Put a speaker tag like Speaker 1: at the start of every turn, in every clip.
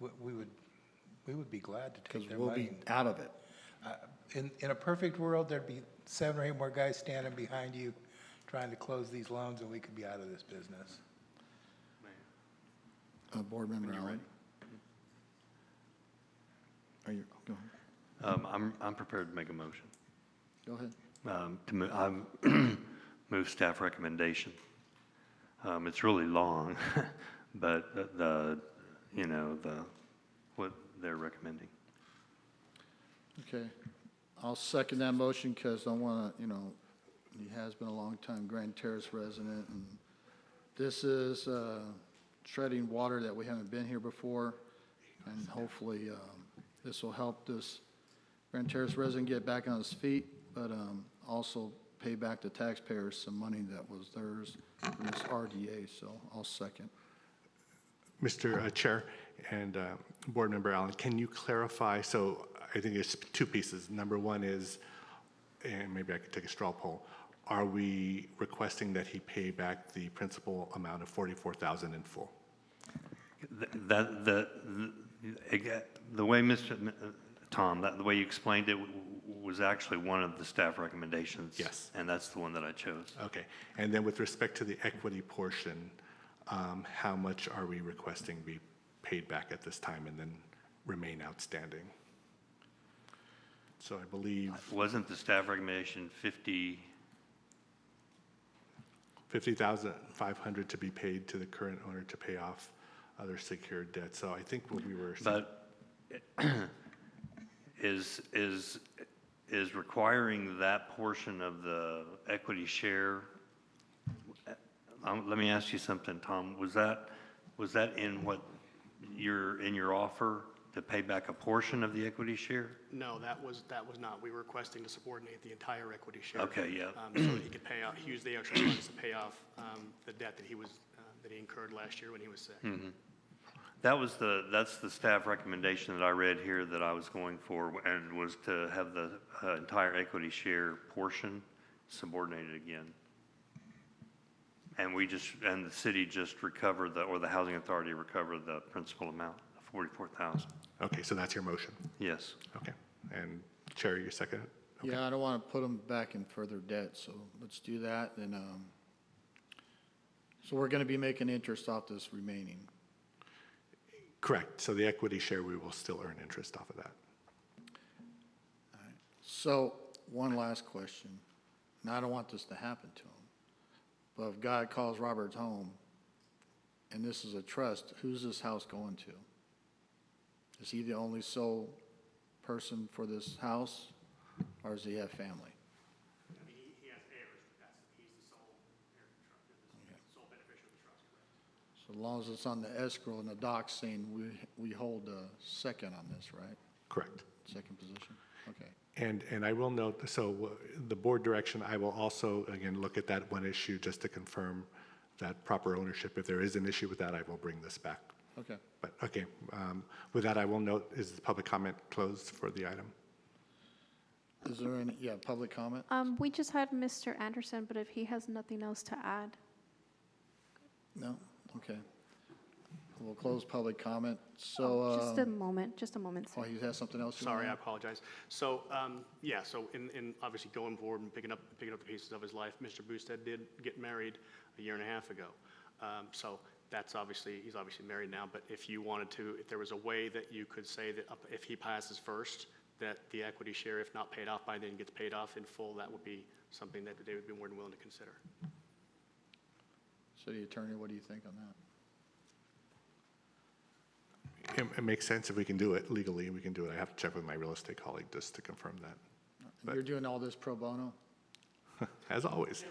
Speaker 1: we- we would, we would be glad to
Speaker 2: because
Speaker 1: take their
Speaker 2: we'll
Speaker 1: money.
Speaker 2: be out of it.
Speaker 1: In, in a perfect world, there'd be seven or eight more guys standing behind you trying to close these loans, and we could be out of this business.
Speaker 2: Uh, Board Member Allen? Are you, go ahead.
Speaker 3: Um, I'm, I'm prepared to make a motion.
Speaker 2: Go ahead.
Speaker 3: Um, to move, I move staff recommendation. Um, it's really long, but the- the, you know, the, what they're recommending.
Speaker 2: Okay. I'll second that motion because I want to, you know, he has been a long time Grand Terrace resident. and This is uh, treading water that we haven't been here before. And hopefully, um, this will help this Grand Terrace resident get back on his feet, but um, also pay back the taxpayers some money that was theirs from this RDA. So I'll second.
Speaker 4: Mr. uh, Chair and uh, Board Member Allen, can you clarify? So I think it's two pieces. Number one is, and maybe I could take a straw poll, are we requesting that he pay back the principal amount of 44000 in full?
Speaker 3: Th- That, the, the- the way Mr. M- uh, Tom, that, the way you explained it w- w- was actually one of the staff recommendations.
Speaker 4: Yes.
Speaker 3: And that's the one that I chose.
Speaker 4: Okay. And then with respect to the equity portion, um, how much are we requesting be paid back at this time and then remain outstanding? So I believe
Speaker 3: Wasn't the staff recommendation 50,
Speaker 4: 50,500 to be paid to the current owner to pay off other secured debt. So I think what we were,
Speaker 3: But is, is, is requiring that portion of the equity share, um, let me ask you something, Tom, was that, was that in what, your, in your offer to pay back a portion of the equity share?
Speaker 5: No, that was, that was not. We were requesting to subordinate the entire equity share.
Speaker 3: Okay, yeah.
Speaker 5: um, So that he could pay out, he used the extra funds to pay off um, the debt that he was, uh, that he incurred last year when he was sick.
Speaker 3: That was the, that's the staff recommendation that I read here that I was going for and was to have the uh, entire equity share portion subordinated again. And we just, and the city just recovered the, or the housing authority recovered the principal amount, forty-four thousand.
Speaker 4: okay, so that's your motion.
Speaker 3: Yes.
Speaker 4: Okay. And Chair, your second?
Speaker 2: Yeah, I don't want to put them back in further debt, so let's do that, and, um, so we're going to be making interest off this remaining.
Speaker 4: Correct. So the equity share, we will still earn interest off of that.
Speaker 2: So, one last question, and I don't want this to happen to him, but if God calls Roberts home, and this is a trust, who's this house going to? Is he the only sole person for this house, or does he have family?
Speaker 5: He has heirs, that's, he's the sole heir of the trust, sole beneficiary of the trust, correct?
Speaker 2: So long as it's on the escrow and the doc saying we, we hold the second on this, right?
Speaker 4: Correct.
Speaker 2: Second position? Okay.
Speaker 4: And, and I will note, so w- the board direction, I will also, again, look at that one issue just to confirm that proper ownership. If there is an issue with that, I will bring this back.
Speaker 2: Okay.
Speaker 4: But, okay, um, with that, I will note, is the public comment closed for the item?
Speaker 2: Is there any, yeah, public comment?
Speaker 6: Um, we just had Mr. Anderson, but if he has nothing else to add.
Speaker 2: No? Okay. We'll close public comment. So,
Speaker 6: Oh, Just a
Speaker 2: um,
Speaker 6: moment, just a moment,
Speaker 2: oh,
Speaker 6: sir.
Speaker 2: you have something else? you
Speaker 5: Sorry, I
Speaker 2: wanna-
Speaker 5: apologize. So, um, yeah, so in, in, obviously going forward and picking up, picking up the pieces of his life, Mr. Boosted did get married a year and a half ago. Um, so that's obviously, he's obviously married now, but if you wanted to, if there was a way that you could say that up- if he passes first, that the equity share, if not paid off by then, gets paid off in full, that would be something that they would be more than willing to consider.
Speaker 2: City Attorney, what do you think on that?
Speaker 4: It, it makes sense if we can do it legally, we can do it. I have to check with my real estate colleague just to confirm that,
Speaker 2: You're doing all this pro bono?
Speaker 4: as always.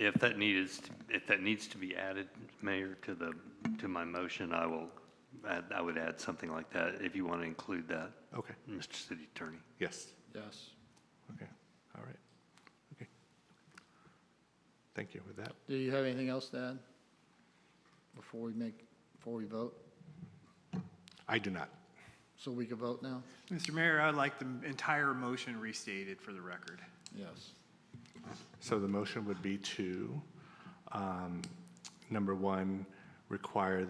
Speaker 3: If that needed, if that needs to be added, Mayor, to the, to my motion, I will, add- I would add something like that if you want to include that,
Speaker 4: Okay,
Speaker 3: Mr. City Attorney.
Speaker 4: yes,
Speaker 2: Yes.
Speaker 4: okay, all right, okay. Thank you with that.
Speaker 2: Do you have anything else to add before we make, before we vote?
Speaker 4: I do not.
Speaker 2: So we can vote now?
Speaker 7: Mr. Mayor, I'd like the entire motion restated for the record.
Speaker 2: Yes.
Speaker 4: So the motion would be to, um, number one, require